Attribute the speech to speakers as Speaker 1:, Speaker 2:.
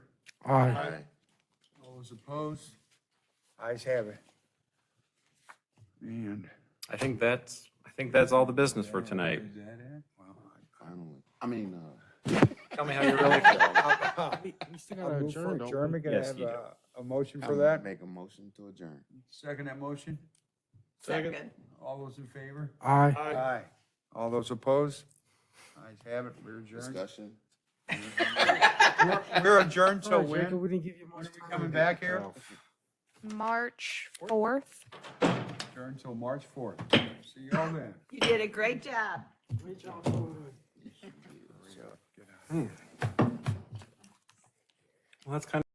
Speaker 1: Aye.
Speaker 2: All those opposed?
Speaker 1: Ayes have it. And
Speaker 3: I think that's, I think that's all the business for tonight.
Speaker 2: Is that it?
Speaker 4: Finally. I mean, uh.
Speaker 3: Tell me how you really feel.
Speaker 4: We still
Speaker 1: I move for adjournment, can I
Speaker 3: Yes,
Speaker 1: have
Speaker 3: you do.
Speaker 1: a, a motion for that?
Speaker 4: Make a motion to adjourn.
Speaker 2: Second that motion?
Speaker 5: Second.
Speaker 2: All those in favor?
Speaker 1: Aye. Aye. All those opposed? Ayes have it, we're adjourned.
Speaker 4: Discussion.
Speaker 1: We're adjourned till when?
Speaker 6: We didn't give you much
Speaker 1: When are we coming back here?
Speaker 7: March 4th.
Speaker 1: Adjourned till March fourth. See y'all then.
Speaker 5: You did a great job.
Speaker 3: Well, that's kind of.